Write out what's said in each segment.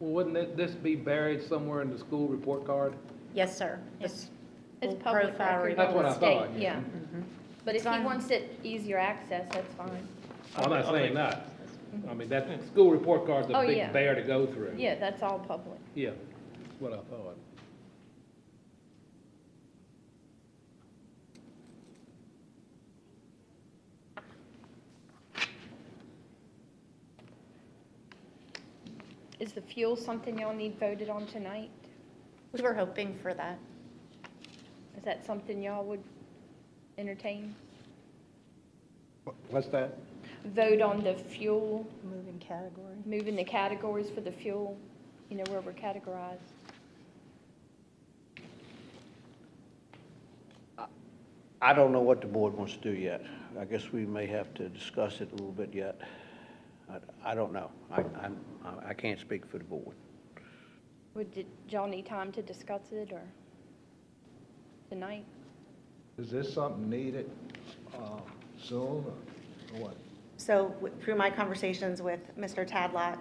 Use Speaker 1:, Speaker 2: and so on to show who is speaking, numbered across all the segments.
Speaker 1: Well, wouldn't it- this be buried somewhere in the school report card?
Speaker 2: Yes, sir. This
Speaker 3: It's
Speaker 2: will
Speaker 3: public
Speaker 2: profile
Speaker 3: record.
Speaker 1: That's what I
Speaker 2: report.
Speaker 1: thought.
Speaker 3: State,
Speaker 1: yeah.
Speaker 3: Yeah, but if he
Speaker 2: Fine.
Speaker 3: wants it easier access, that's fine.
Speaker 1: I'm
Speaker 4: I
Speaker 1: not
Speaker 4: think-
Speaker 1: saying that. I mean, that, school report card's a
Speaker 3: Oh,
Speaker 1: big
Speaker 3: yeah.
Speaker 1: bear to go through.
Speaker 3: Yeah, that's all public.
Speaker 1: Yeah, that's what I thought.
Speaker 3: Is the fuel something y'all need voted on tonight?
Speaker 2: We were hoping for that.
Speaker 3: Is that something y'all would entertain?
Speaker 5: What's that?
Speaker 3: Vote on the fuel,
Speaker 6: Moving category.
Speaker 3: moving the categories for the fuel, you know, where we're categorized.
Speaker 5: I don't know what the board wants to do yet. I guess we may have to discuss it a little bit yet. I, I don't know. I, I'm, I- I can't speak for the board.
Speaker 3: Would, did y'all need time to discuss it or tonight?
Speaker 7: Is this something needed uh, soon or or what?
Speaker 8: So w- through my conversations with Mr. Tadlock,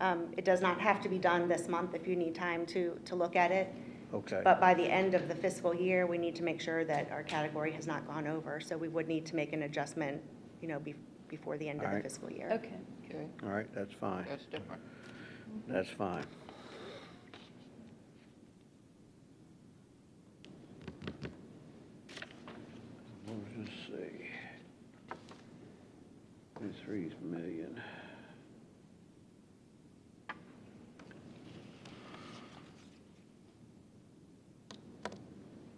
Speaker 8: um, it does not have to be done this month if you need time to, to look at it.
Speaker 5: Okay.
Speaker 8: But by the end of the fiscal year, we need to make sure that our category has not gone over. So we would need to make an adjustment, you know, be- before the end of the
Speaker 5: Alright.
Speaker 8: fiscal year.
Speaker 3: Okay.
Speaker 6: Okay,
Speaker 5: All right, that's fine.
Speaker 6: that's different.
Speaker 5: That's fine. Let's just see. Three million.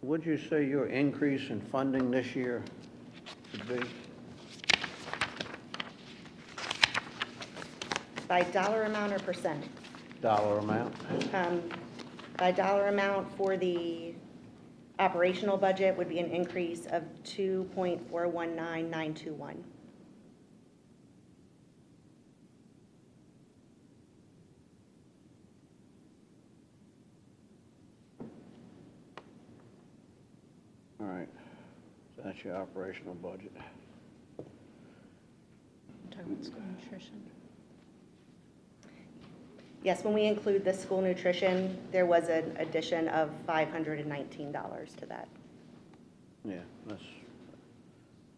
Speaker 5: What'd you say your increase in funding this year would be?
Speaker 8: By dollar amount or percent?
Speaker 5: Dollar amount?
Speaker 8: Um, By dollar amount for the operational budget would be an increase of 2.419921.
Speaker 5: All right. That's your operational budget.
Speaker 2: Talking about school nutrition.
Speaker 8: Yes, when we include the school nutrition, there was an addition of $519 to that.
Speaker 5: Yeah, that's,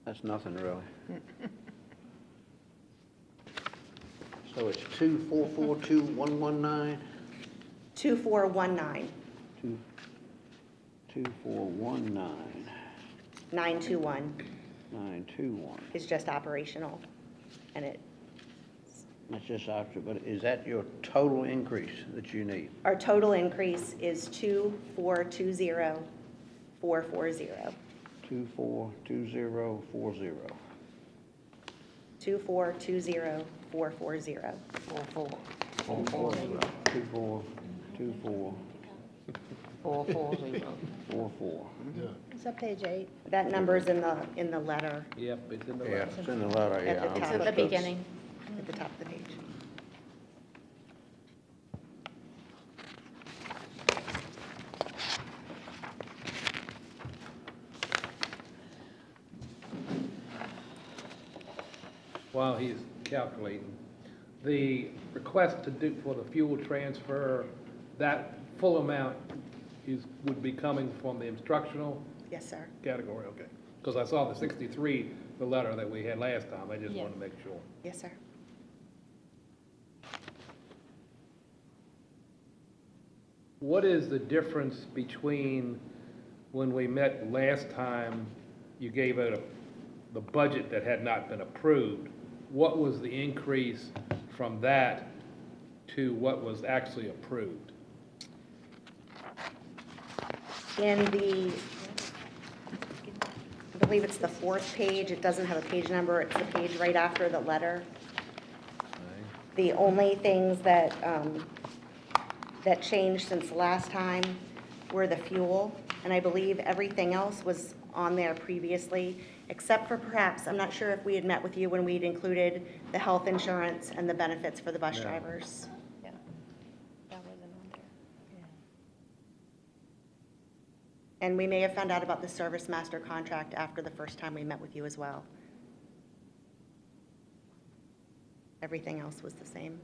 Speaker 5: that's nothing really. So it's two four four two one one nine,
Speaker 8: 2419,
Speaker 5: two, two four one nine,
Speaker 8: 921
Speaker 5: nine two one.
Speaker 8: is just operational, and it,
Speaker 5: That's just after, but is that your total increase that you need?
Speaker 8: our total increase is 2420440,
Speaker 5: Two four two zero four zero.
Speaker 8: 2420440.
Speaker 6: Four, four,
Speaker 5: Four four zero. Two four, two four,
Speaker 6: four, four, zero.
Speaker 5: four four.
Speaker 6: Is that page eight?
Speaker 8: That number's in the, in the letter
Speaker 1: Yep, it's in the
Speaker 5: Yeah,
Speaker 1: right.
Speaker 5: it's in the letter, yeah.
Speaker 8: At the
Speaker 5: I'm
Speaker 8: top.
Speaker 2: It's
Speaker 5: just-
Speaker 2: at the beginning.
Speaker 8: at the top of the page.
Speaker 1: While he's calculating, the request to do for the fuel transfer, that full amount is, would be coming from the instructional
Speaker 8: Yes, sir.
Speaker 1: category, okay? Because I saw the sixty-three, the letter that we had last time, I just
Speaker 3: Yeah.
Speaker 1: want to make sure.
Speaker 8: Yes, sir.
Speaker 1: What is the difference between when we met last time, you gave out a- the budget that had not been approved? What was the increase from that to what was actually approved?
Speaker 8: In the, I believe it's the fourth page, it doesn't have a page number, it's the page right after the letter. The only things that, um, that changed since last time were the fuel, and I believe everything else was on there previously, except for perhaps, I'm not sure if we had met with you when we'd included the health insurance and the benefits for the bus drivers.
Speaker 3: Yeah, that wasn't on there.
Speaker 8: And we may have found out about the service master contract after the first time we met with you as well. Everything else was the same.